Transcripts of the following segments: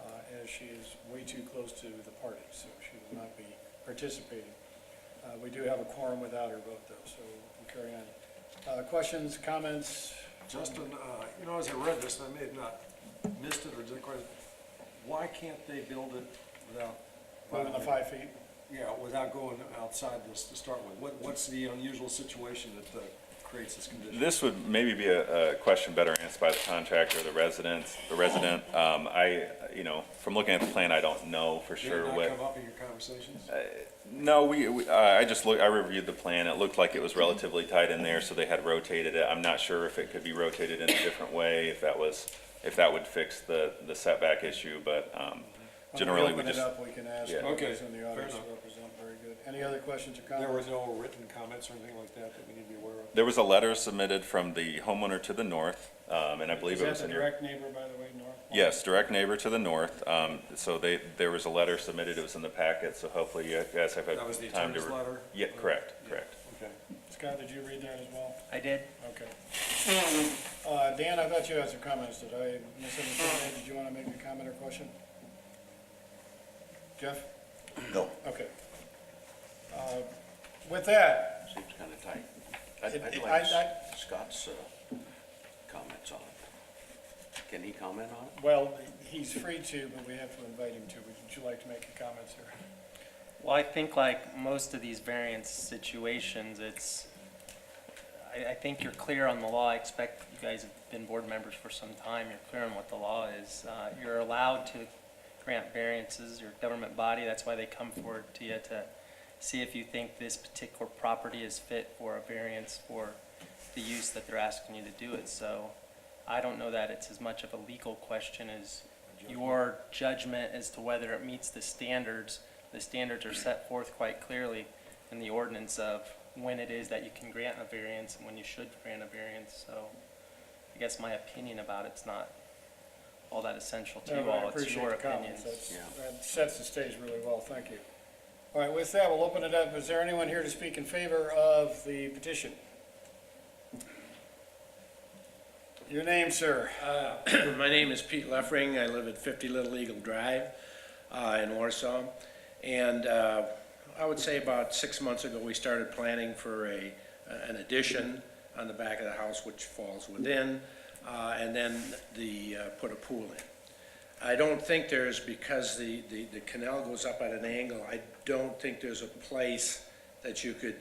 uh, she is way too close to the party, so she will not be participating. Uh, We do have a quorum without her vote, though, so we'll carry on. Uh, Questions, comments? Justin, uh, you know, as I read this, and I may have not missed it or didn't quite, why can't they build it without? Moving the five feet? Yeah, without going outside this to start with. What, what's the unusual situation that uh, creates this condition? This would maybe be a, a question better answered by the contractor, or the residents, the resident. Um, I, you know, from looking at the plan, I don't know for Did it sure Uh, not what. come up in your conversations? No, we, we, I I just looked, I reviewed the plan. It looked like it was relatively tight in there, so they had rotated it. I'm not sure if it could be rotated in a different way, if that was, if that would fix the, the setback issue, but, um, generally we When we just. open it up, we can ask. Yeah. Okay, those in the audience fair to enough. represent. Very good. Any other questions or There were comments? no written comments or anything like that that we need to be aware of? There was a letter submitted from the homeowner to the north, um, and I believe Is it that was the in your. direct neighbor, by the way, North? Yes, direct neighbor to the north. Um, so they, there was a letter submitted. It was in the packet, so hopefully you guys have had That was the time to. attorney's re- letter? Yeah, correct, correct. Okay. Scott, did you read that as well? I did. Okay. Uh, Dan, I thought you had some comments. Did I misunderstand? Did you want to make a comment or question? Jeff? No, Okay. Uh, With that, seems kind of tight. It- I'd- I'd it- like I- I- Scott's uh, comments on it. Can he comment on it? well, he's free to, but we have to invite him to. Would you like to make a comment, sir? Well, I think like most of these variance situations, it's, I, I think you're clear on the law. I expect you guys have been board members for some time. You're clear on what the law is. Uh, you're allowed to grant variances, your government body, that's why they come forward to you to see if you think this particular property is fit for a variance for the use that they're asking you to do it. So I don't know that it's as much of a legal question as your judgment as to whether it meets the standards. The standards are set forth quite clearly in the ordinance of when it is that you can grant a variance and when you should grant a variance. So I guess my opinion about it's not all that essential to you No, I all. It's appreciate your the opinion. comments. That's- That sets the stage really well, thank you. All right, with that, we'll open it up. Is there anyone here to speak in favor of the petition? Your name, sir? Uh, My name is Pete Leffering. I live at 50 Little Eagle Drive uh, in Warsaw. And uh, I would say about six months ago, we started planning for a, an addition on the back of the house, which falls within, uh, and then the, uh, put a pool in. I don't think there's, because the, the the canal goes up at an angle, I don't think there's a place that you could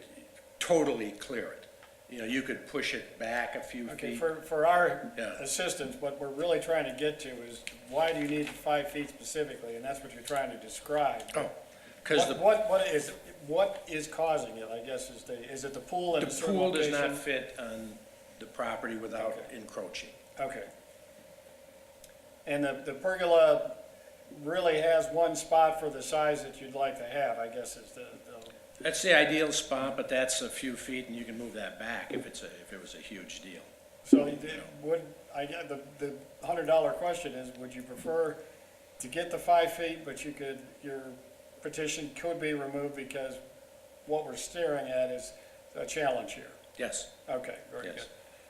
totally clear it. You know, you could push it back a few feet. Okay, for, for our Yeah. assistance, what we're really trying to get to is why do you need five feet specifically? And that's what you're trying to describe. Oh, because the What- What, what is, what is causing it, I guess, is the, is it the pool in The a certain pool does location? not fit on the property without Okay. encroaching. Okay. And the, the pergola really has one spot for the size that you'd like to have, I guess is the, the, That's the ideal spot, but that's a few feet, and you can move that back if it's a, if it was a huge deal. so you did- would, I, get- the, the hundred dollar question is, would you prefer to get the five feet, but you could, your petition could be removed because what we're staring at is a challenge here? Yes, Okay, very good. Yes.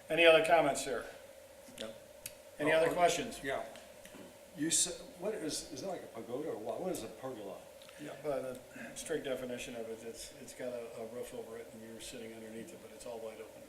Any other comments here? No. Any other questions? Yeah. You said, what is, is that like a pagoda or what? What is a pergola? Yeah, by the strict definition of it, it's, it's got a, a roof over it and you're sitting underneath it, but it's all wide open.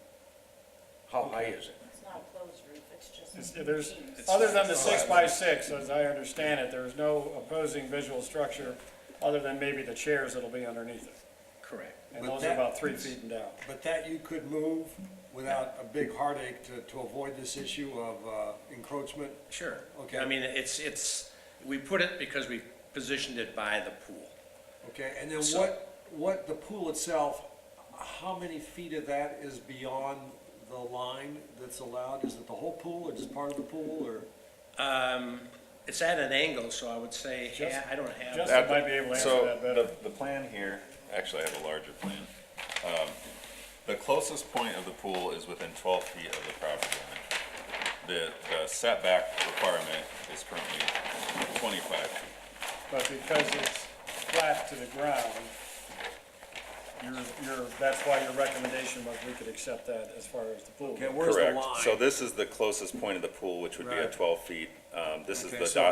How high is it? It's not a closed roof, it's just. It's, there's, beams. other than the six by six, as I understand it, there's no opposing visual structure other than maybe the chairs that'll be underneath it. correct. And But those are that- about three feet and down. But that you could move without a big heartache to, to avoid this issue of uh, encroachment? Sure. Okay. I mean, it's, it's, we put it because we positioned it by the pool. Okay, and then So- what, what, the pool itself, how many feet of that is beyond the line that's allowed? Is it the whole pool or just part of the pool or? Um, it's at an angle, so I would say, Just- yeah, I don't have. just- At the- might be able to answer so that better. the- The plan here, actually, I have a larger plan. Um, The closest point of the pool is within twelve feet of the property line. The the setback requirement is currently twenty-five feet. But because it's flat to the ground, your, your, that's why your recommendation was we could accept that as far as the pool. Okay, where's the line? Correct. So this is the closest point of the pool, which would be at Right. twelve feet. Um, This is Okay, the so dot